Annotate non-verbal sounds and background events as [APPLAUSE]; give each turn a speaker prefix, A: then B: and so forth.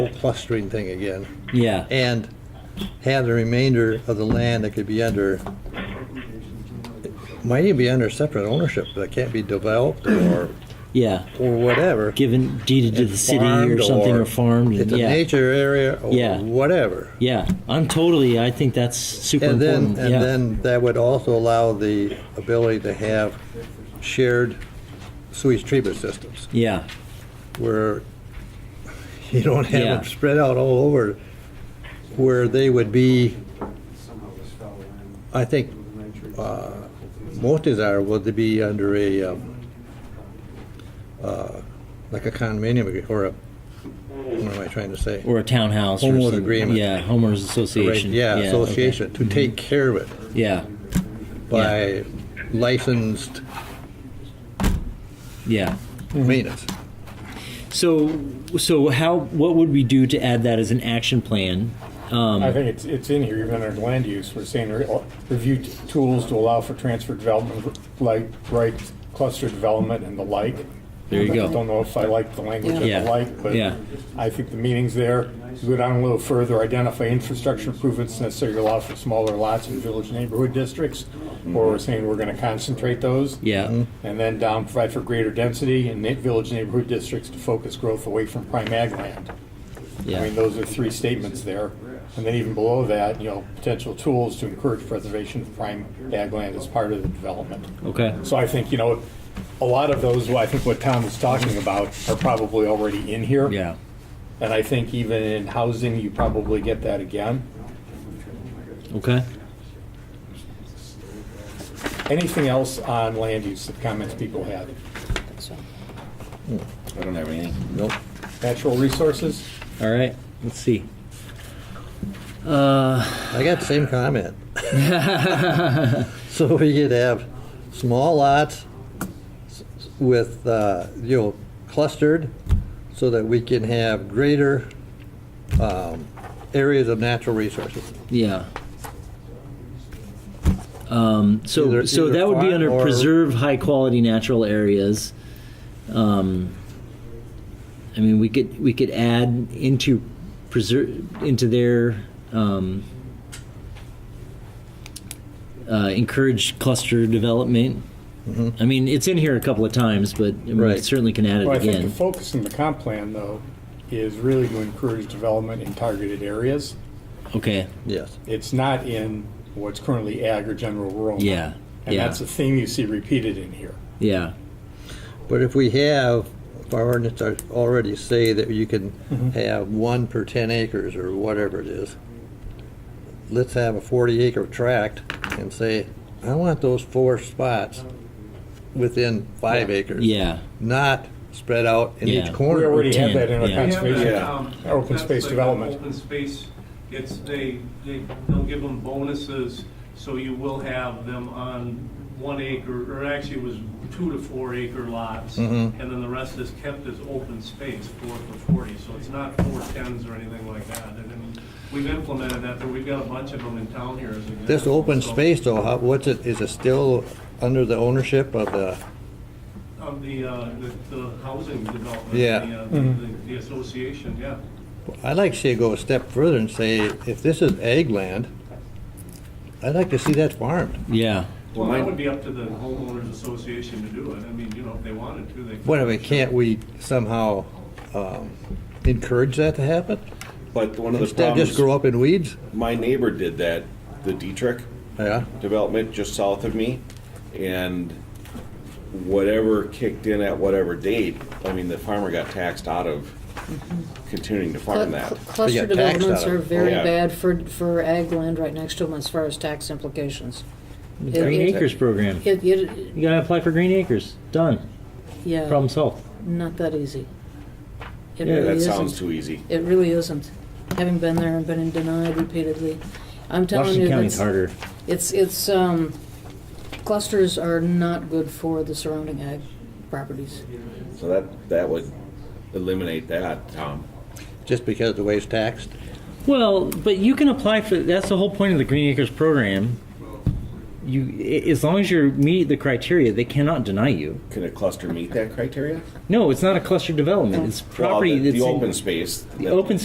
A: whole clustering thing again,
B: Yeah,
A: and have the remainder of the land that could be under, might even be under separate ownership, that can't be developed or,
B: yeah.
A: or whatever.
B: Given deeded to the city or
A: farmed
B: something or farmed. and-
A: It's a
B: Yeah,
A: nature area or
B: Yeah.
A: whatever.
B: yeah. I'm totally, I think that's super
A: And then,
B: important.
A: and
B: Yeah,
A: then that would also allow the ability to have shared sewage treatment systems
B: yeah,
A: where [LAUGHS] you don't have
B: Yeah.
A: them spread out all over where they would be, I think, uh, most desirable to be under a, um, uh, like a condominium agree- or a, what am I trying to say?
B: or a townhouse or
A: Homeowners
B: something.
A: agreement.
B: Yeah, homeowners association.
A: Yeah,
B: okay. Mm-hmm.
A: association, to take care of it.
B: Yeah,
A: by licensed
B: yeah.
A: maintenance.
B: So, so how, what would we do to add that as an action plan? Um,
C: I think it's, it's in here, even under land use, we're saying re- uh, review t- tools to allow for transfer development, like, right, cluster development and the like.
B: There you
C: I
B: go.
C: Don't know if I like the language of
B: Yeah.
C: the like, but
B: Yeah.
C: I think the meaning's there. Go down a little further, identify infrastructure improvements necessary to allow for smaller lots in village neighborhood districts, where we're saying we're gonna concentrate those.
B: Yeah. Mhm.
A: Mm-hmm.
C: And then down, provide for greater density in na- village neighborhood districts to focus growth away from prime ag land. I mean,
B: Yeah,
C: those are three statements there. And then even below that, you know, potential tools to encourage preservation of prime ag land as part of the development.
B: okay,
C: So I think, you know, a lot of those, I think what Tom was talking about are probably already in here.
B: yeah,
C: And I think even in housing, you probably get that again.
B: okay.
C: Anything else on land use, that comments people had?
A: Hmm.
D: I don't have anything.
A: Nope.
C: Natural resources?
B: All right, let's see. Uh, [LAUGHS]
A: I got the same comment. [LAUGHS] So we could have small lots s- with, uh, you know, clustered so that we can have greater um, areas of natural resources.
B: yeah. Um, so,
A: Either-
B: so
A: either
B: that would be
A: farm
B: under
A: or-
B: preserve high quality natural areas. Um, I mean, we could we could add into preserve into their um, uh, encourage cluster development. I mean, it's in here a couple of times, but I mean, we
A: Mm-hmm. Right.
B: certainly can add it
C: Well, I think the
B: again.
C: focus in the comp plan, though, is really to encourage development in targeted areas.
B: Okay.
A: Yes.
C: it's not in what's currently ag or general rural.
B: Yeah,
C: And
B: yeah.
C: that's a theme you see repeated in here.
B: Yeah.
A: But if we have, if our ordinance are- already say that you can
C: Mm-hmm.
A: have one per 10 acres or whatever it is, let's have a 40 acre tract and say, I want those four spots within five acres.
B: Yeah.
A: Not spread out in
B: Yeah.
A: each
C: We
A: corner.
C: already have
B: Ten,
C: that in our
B: yeah.
C: conservation.
D: Yeah.
E: Um,
C: our open
E: that's
C: space
E: like
C: development.
E: Open space, it's, they, they, they'll give them bonuses, so you will have them on one acre, or actually it was two to four acre lots. And then the rest is kept as open space, four to forty, so it's not four tens or anything like that. And I mean, we've implemented that, but we've got a bunch of them in town here as an example.
A: This open
E: so-
A: space though, how, what's it, is it still under the ownership of the,
E: Of the, uh, the, the housing development.
A: Yeah.
E: the, uh, The, the association, yeah.
A: I'd like to see it go a step further and say, if this is ag land, I'd like to see that farmed.
B: Yeah.
E: Well,
D: Well,
E: that
D: my-
E: would be up to the homeowners association to do it. I mean, you know, if they wanted to, they could.
A: What, I mean, can't we somehow um, encourage that to happen?
D: But one of the
A: Instead, just grow up
D: problems,
A: in weeds?
D: my neighbor did that, the Dietrich
A: Yeah,
D: development just south of me. And whatever kicked in at whatever date, I mean, the farmer got taxed out of continuing to
F: Cl-
D: farm that.
F: cl- Cluster
A: They get taxed
F: developments
A: out of
F: are
A: it.
F: very
D: Yeah.
F: bad for, for ag land right next to them as far as tax implications. It-
B: Green
F: it-
B: Acres program.
F: It, it,
B: You gotta apply for Green Acres. Done.
F: yeah,
D: Uh,
B: Problem solved.
F: not that easy. It
B: Yeah,
F: really
D: That
F: isn't.
D: sounds too easy.
F: It really isn't, having been there and been denied repeatedly. I'm telling you,
B: Washington County's
F: that's,
B: harder.
F: it's, it's, um, clusters are not good for the surrounding ag properties.
D: So that, that would eliminate that, um, Tom.
A: just because the way it's taxed?
B: Well, but you can apply for, that's the whole point of the Green Acres program. You, i- as long as you meet the criteria, they cannot deny you.
D: Can a cluster meet that criteria?
B: No, it's not a cluster development. It's
D: Well,
B: property
D: the-
B: that's.
D: The
B: in-
D: open space.
B: The open